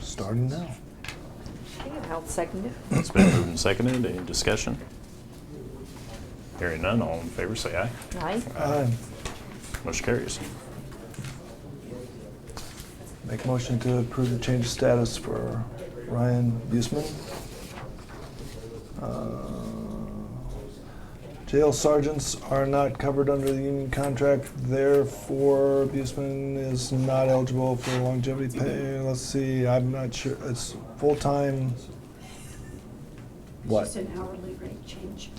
starting now. Okay, I'll second it. It's been moved and seconded. Any discussion? Hearing none, all in favor say aye. Aye. Uh, Motion carries. Make motion to approve the change of status for Ryan Buseman. Uh, Jail sergeants are not covered under the union contract, therefore Buseman is not eligible for longevity pay. Let's see, I'm not sure, it's full-time, It's what? just an hourly rate change.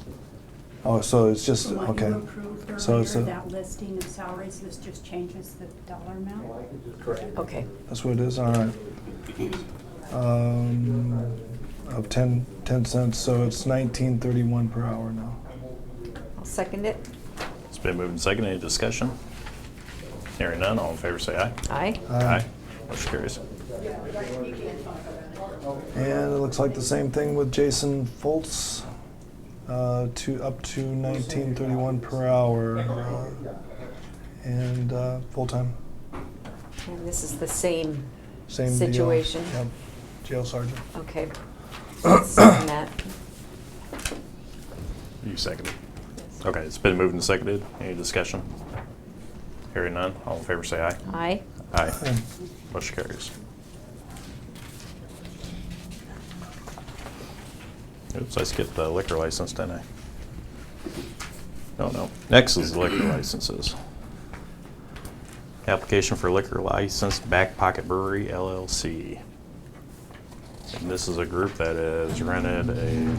Oh, so it's just, From what you okay. approved So it's earlier, a- That listing of salaries, this just changes the dollar amount. Okay. That's what it is, all right. Um, Of 10, 10 cents, so it's 19.31 per hour now. I'll second it. It's been moved and seconded. Any discussion? Hearing none, all in favor say aye. Aye. Aye. Motion carries. And it looks like the same thing with Jason Foltz, uh, to up to 19.31 per hour, uh, and uh, full-time, And this is the same. same deal. Situation. Yep, jail sergeant. Okay. I'll Second that. You seconded. Okay, it's been moved and seconded. Any discussion? Hearing none, all in favor say aye. Aye. Aye. And Motion carries. Oops, I skipped the liquor license, didn't I? No, no. Next is liquor licenses. Application for liquor license, Back Pocket Brewery LLC. And this is a group that has rented a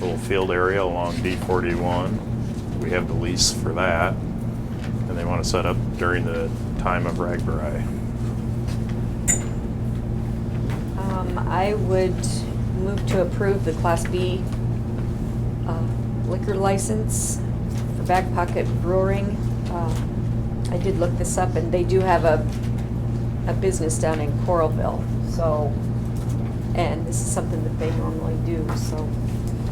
little field area along D41. We have the lease for that, and they want to set up during the time of Ragbri. Um, I would move to approve the Class B uh, liquor license for Back Pocket Brewing. Uh, I did look this up, and they do have a, a business down in Coralville, so, and this is something that they normally do, so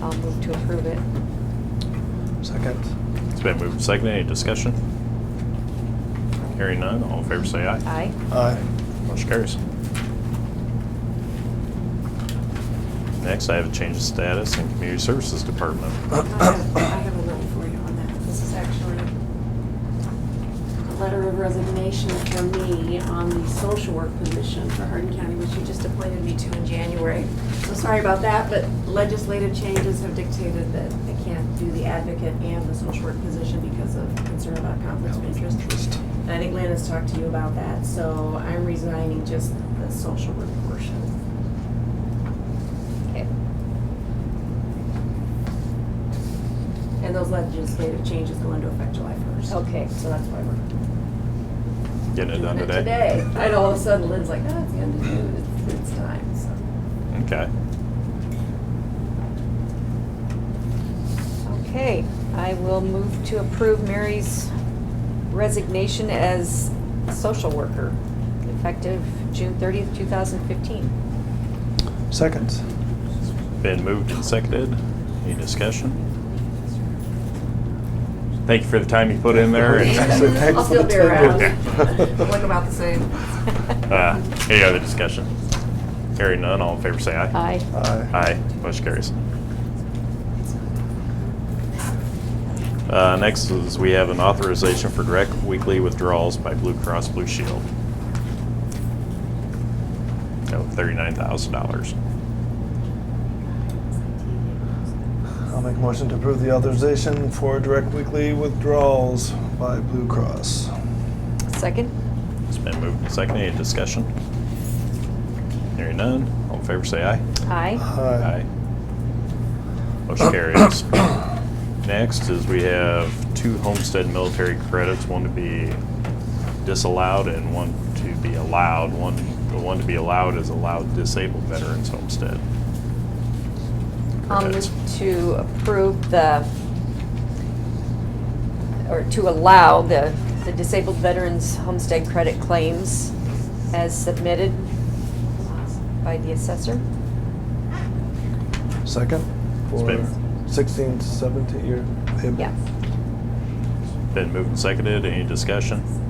I'll move to approve it. Second. It's been moved and seconded. Any discussion? Hearing none, all in favor say aye. Aye. Aye. Motion carries. Next, I have a change of status in Community Services Department. I have I have a note for you on that. This is actually a letter of resignation for me on the social work position for Hardin County, which you just appointed me to in January. So sorry about that, but legislative changes have dictated that I can't do the advocate and the social work position because of concern about conflicts of interest. And I think Lynn has talked to you about that, so I'm resigning just the social work portion. Okay. And those legislative changes go into effect July 1st. Okay. So that's why we're Getting it done doing it today. today. I know all of a sudden Lynn's like, oh, it's the end of June, it's, it's time, so. Okay. Okay, I will move to approve Mary's resignation as social worker, effective June 30th, 2015. Second. Been moved and seconded. Any discussion? Thank you for the time you put in there. and- I'll Thanks for still the be time. around. Yeah. Look about the same. Uh, Any other discussion? Hearing none, all in favor say aye. Aye. Aye. Aye, motion carries. Uh, Next is, we have an authorization for direct weekly withdrawals by Blue Cross Blue Shield. Oh, $39,000. I'll make a motion to approve the authorization for direct weekly withdrawals by Blue Cross. Second? It's been moved and seconded, any discussion? Hearing none, all in favor say aye. Aye. Aye. Motion carries. Next is we have two homestead military credits, one to be disallowed and one to be allowed. One, the one to be allowed is allowed disabled veterans homestead. I'll Credits. move to approve the, or to allow the the disabled veterans homestead credit claims as submitted by the assessor. Second It's for been- 16, 17 year payable. Yeah. Been moved and seconded, any discussion?